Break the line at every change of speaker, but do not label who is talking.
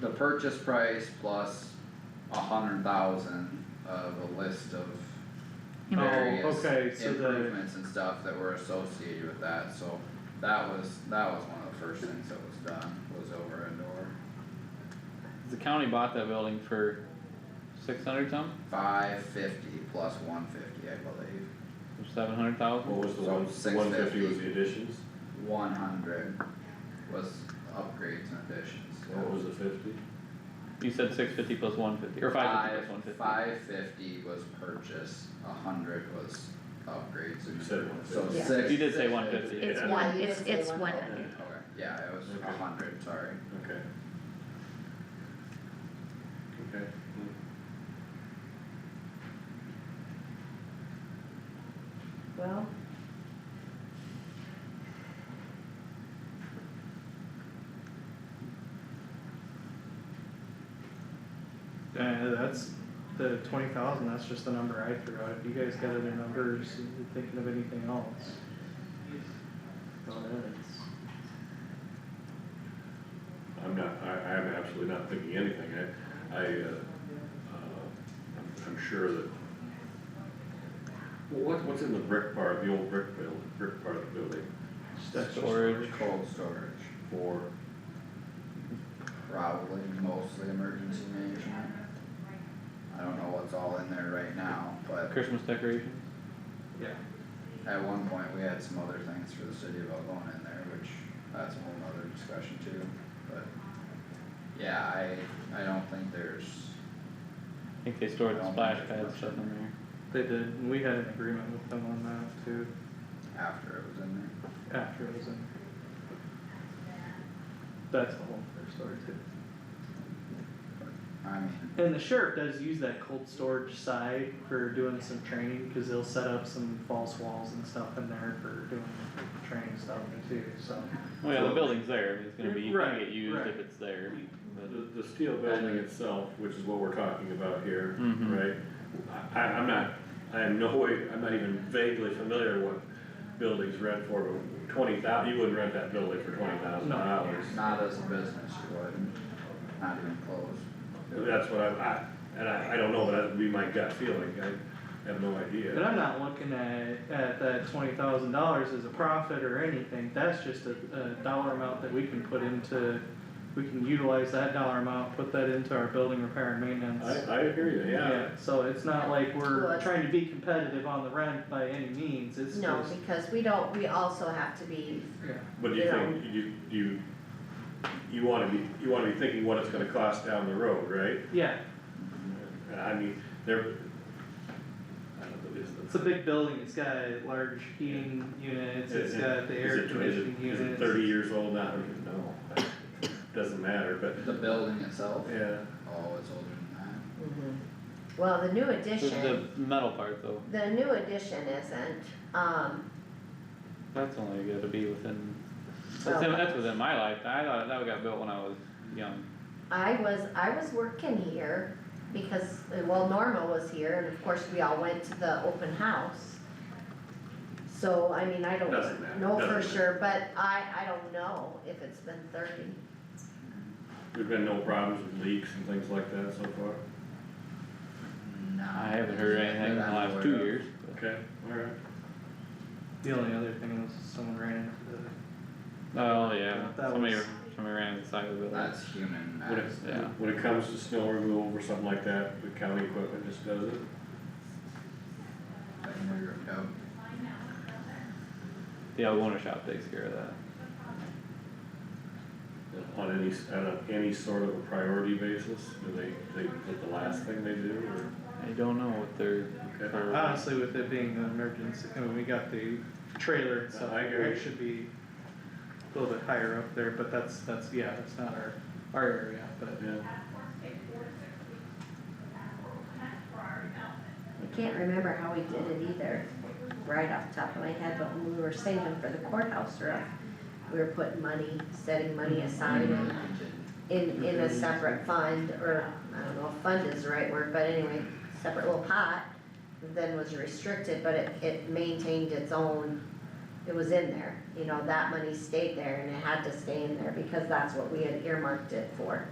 the purchase price plus a hundred thousand of a list of
Oh,
various
okay, so the-
improvements and stuff that were associated with that, so that was, that was one of the first things that was done, was over a door.
The county bought that building for six hundred some,
Five fifty plus one fifty, I believe,
seven hundred thousand?
What was the
So
one,
six
one fifty was
fifty.
the additions,
one hundred was upgrades and additions.
what was the fifty?
You said six fifty plus one fifty, or five fifty plus one fifty?
Five fifty was purchase, a hundred was upgrades and
You said
improvements. so
150.
six.
Yeah. You did say 150.
It's
Yeah.
one,
Yeah,
it's,
you
it's
say
one
100.
hundred.
Okay, yeah, it was
Okay.
a hundred, sorry.
Okay. Okay.
Well.
Yeah, Uh, that's the twenty thousand, that's just the number I threw out, if you guys got other numbers, if you're thinking of anything else. Well, it's,
I'm not, I, I'm absolutely not thinking anything, I, I, uh, uh, I'm, I'm sure that. Well, what, what's in the brick part, the old brick build, brick part of the building
just extra
Storage.
Cold storage,
for,
probably mostly emergency management. I don't know what's all in there right now, but
Christmas decorations?
Yeah,
at one point, we had some other things for the city of Algonah in there, which that's a whole nother discussion too, but. Yeah, I, I don't think there's,
I think they stored the
Well,
splash
that's
pad
much
stuff
in
in there.
they did, and we had an agreement with them on that too,
after it was in there.
after it was in. That's the whole first story too.
I mean,
And the sheriff does use that cold storage side for doing some training, cause they'll set up some false walls and stuff in there for doing training stuff too, so.
Well, yeah, the building's there, it's gonna be, you can
Right,
get used if
right.
it's there, but.
the, the steel building itself, which is what we're talking about here,
Mhm.
right? I, I'm not, I am no way, I'm not even vaguely familiar what buildings rent for, but twenty thou, you wouldn't rent that building for twenty thousand
No.
dollars.
not as a business, you wouldn't, not even close.
That's what I, I, and I, I don't know, but that'd be my gut feeling, I have no idea.
But I'm not looking at, at that twenty thousand dollars as a profit or anything, that's just a, a dollar amount that we can put into, we can utilize that dollar amount, put that into our building repair and maintenance.
I, I hear you, yeah,
So it's not like
Well,
we're
it's-
trying to be competitive on the rent by any means, it's
No,
just,
because we don't, we also have to be,
yeah,
but do you
Yeah.
think, you, you, you wanna be, you wanna be thinking what it's gonna cost down the road, right?
yeah,
And I mean, there. I don't know, is the-
it's a big building, it's got large heating units, it's
Is it-
got the
is
air
it- is it-
conditioning
Is
units.
it thirty years old now, no, doesn't matter, but,
The building itself,
yeah,
oh, it's older than that.
well, the new
The,
addition,
the metal part though,
the new addition isn't, um,
that's only gonna be within,
Well-
that's, that's within my life, I thought that got built when I was young.
I was, I was working here because, uh, well, Norma was here and of course we all went to the open house. So, I mean, I don't
Doesn't matter,
know for
doesn't
sure, but I, I don't know if it's been thirty.
there've been no problems with leaks and things like that so far,
I haven't heard anything in the last two years, but
okay, alright.
The only other thing was someone ran into the
Oh, yeah,
That
somebody,
was-
somebody ran into the side of the building.
That's human
When it,
mass.
Yeah.
when it comes to snow removal or something like that, the county equipment just does it,
Like, we were out.
The Algonah shop takes care of that.
on any, s- on a- any sort of a priority basis, do they, they, is it the last thing they do, or?
I don't know what they're.
Okay.
for-
Honestly, with it being an emergency, I mean, we got the trailer and stuff,
I agree.
it should be a little bit higher up there, but that's, that's, yeah, that's not our, our area, but.
Yeah,
I can't remember how we did it either, right off the top of my head, but when we were saving for the courthouse roof, we were putting money, setting money aside
Mm-hmm.
and in, in a separate fund, or, I don't know if fund is the right word, but anyway, separate little pot, then was restricted, but it, it maintained its own, it was in there, you know, that money stayed there and it had to stay in there because that's what we had earmarked it for.